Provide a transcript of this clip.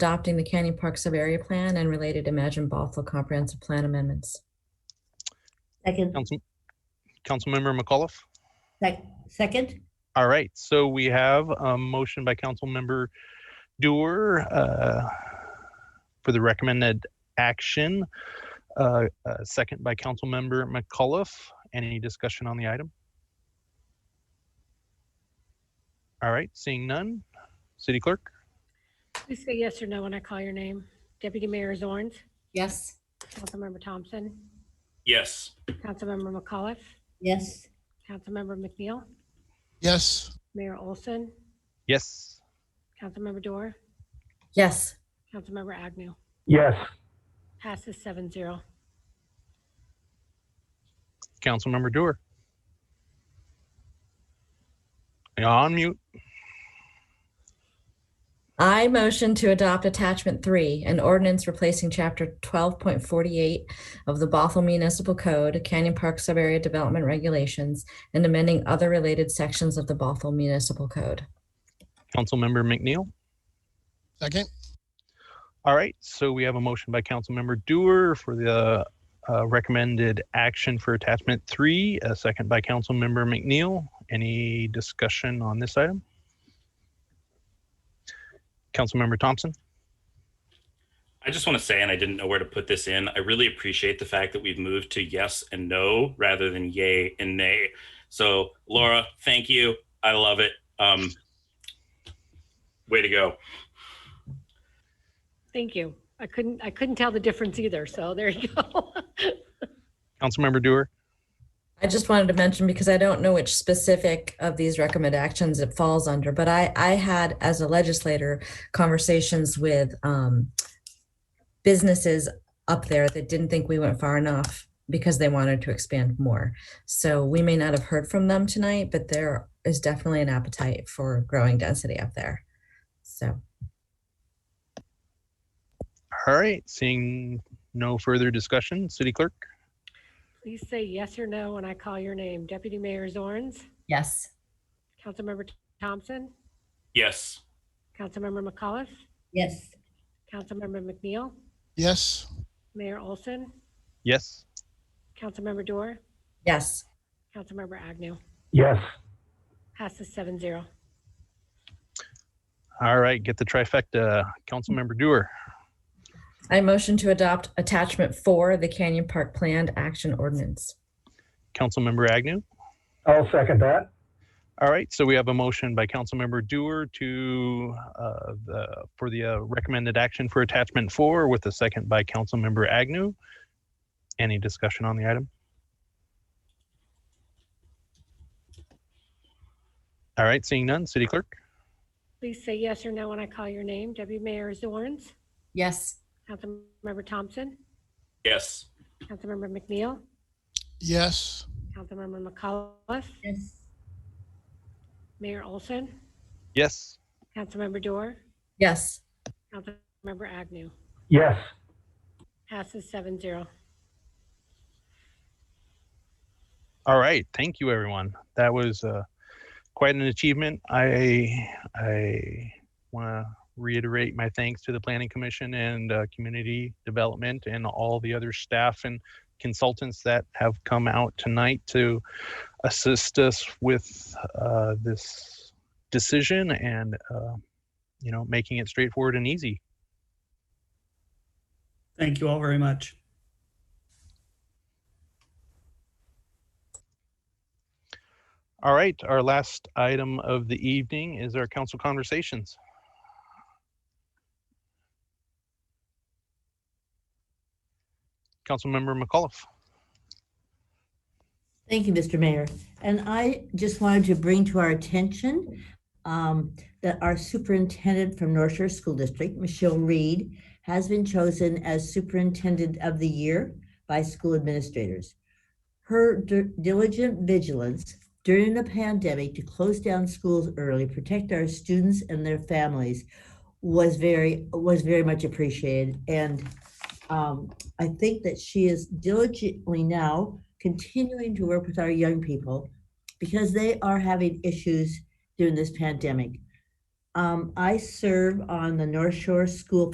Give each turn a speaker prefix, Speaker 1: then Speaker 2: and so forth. Speaker 1: adopting the Canyon Park Sub-Area Plan and related Imagine Bothell Comprehensive Plan amendments.
Speaker 2: Second,
Speaker 3: Council, Councilmember McAuliffe.
Speaker 2: sec- second,
Speaker 3: All right, so we have a motion by Councilmember Doer uh, for the recommended action. Uh, a second by Councilmember McAuliffe. Any discussion on the item? All right, seeing none. City Clerk.
Speaker 4: Please say yes or no when I call your name. Deputy Mayor Zorns,
Speaker 1: Yes.
Speaker 4: Councilmember Thompson,
Speaker 5: yes,
Speaker 4: Councilmember McAuliffe,
Speaker 2: yes,
Speaker 4: Councilmember McNeil,
Speaker 6: yes,
Speaker 4: Mayor Olson,
Speaker 3: Yes.
Speaker 4: Councilmember Dorr,
Speaker 1: Yes.
Speaker 4: Councilmember Agnew.
Speaker 7: yes,
Speaker 4: Passes seven zero.
Speaker 3: Councilmember Doer. You're On mute.
Speaker 1: I motion to adopt attachment three, an ordinance replacing chapter twelve point forty-eight of the Bothell Municipal Code, Canyon Park Sub-Area Development Regulations, and amending other related sections of the Bothell Municipal Code.
Speaker 3: Councilmember McNeil.
Speaker 6: second,
Speaker 3: All right, so we have a motion by Councilmember Doer for the uh, recommended action for attachment three, a second by Councilmember McNeil. Any discussion on this item? Councilmember Thompson?
Speaker 5: I just want to say, and I didn't know where to put this in. I really appreciate the fact that we've moved to yes and no rather than yay and nay. So, Laura, thank you. I love it. Um, way to go.
Speaker 4: Thank you. I couldn't, I couldn't tell the difference either, so there you go.
Speaker 3: Councilmember Doer?
Speaker 1: I just wanted to mention because I don't know which specific of these recommend actions it falls under, but I, I had as a legislator conversations with um, businesses up there that didn't think we went far enough because they wanted to expand more. So we may not have heard from them tonight, but there is definitely an appetite for growing density up there. So
Speaker 3: All right, seeing no further discussion, City Clerk?
Speaker 4: Please say yes or no when I call your name. Deputy Mayor Zorns,
Speaker 1: yes,
Speaker 4: Councilmember Thompson,
Speaker 5: Yes,
Speaker 4: Councilmember McAuliffe,
Speaker 2: yes,
Speaker 4: Councilmember McNeil,
Speaker 6: yes,
Speaker 4: Mayor Olson,
Speaker 3: Yes.
Speaker 4: Councilmember Dorr,
Speaker 1: yes.
Speaker 4: Councilmember Agnew.
Speaker 7: yes,
Speaker 4: Passes seven zero.
Speaker 3: All right, get the trifecta. Councilmember Doer?
Speaker 1: I motion to adopt attachment four, the Canyon Park Planned Action Ordinance.
Speaker 3: Councilmember Agnew?
Speaker 7: I'll second that,
Speaker 3: All right, so we have a motion by Councilmember Doer to, uh, the, for the uh, recommended action for attachment four with a second by Councilmember Agnew. Any discussion on the item? All right, seeing none, City Clerk?
Speaker 4: Please say yes or no when I call your name. Deputy Mayor Zorns,
Speaker 1: Yes.
Speaker 4: Councilmember Thompson,
Speaker 5: yes,
Speaker 4: Councilmember McNeil,
Speaker 6: yes,
Speaker 4: Councilmember McAuliffe,
Speaker 2: yes,
Speaker 4: Mayor Olson,
Speaker 3: Yes.
Speaker 4: Councilmember Dorr,
Speaker 1: Yes.
Speaker 4: Councilmember Agnew.
Speaker 7: yes,
Speaker 4: Passes seven zero.
Speaker 3: All right, thank you, everyone. That was uh, quite an achievement. I I want to reiterate my thanks to the Planning Commission and uh, Community Development and all the other staff and consultants that have come out tonight to assist us with uh, this decision and uh, you know making it straightforward and easy.
Speaker 8: Thank you all very much.
Speaker 3: All right, our last item of the evening is our council conversations. Councilmember McAuliffe.
Speaker 2: Thank you, Mr. Mayor. And I just wanted to bring to our attention um, that our superintendent from North Shore School District, Michelle Reed, has been chosen as Superintendent of the Year by school administrators. Her dir- diligent vigilance during the pandemic to close down schools early, protect our students and their families was very, was very much appreciated. And um, I think that she is diligently now continuing to work with our young people because they are having issues during this pandemic. Um, I serve on the North Shore School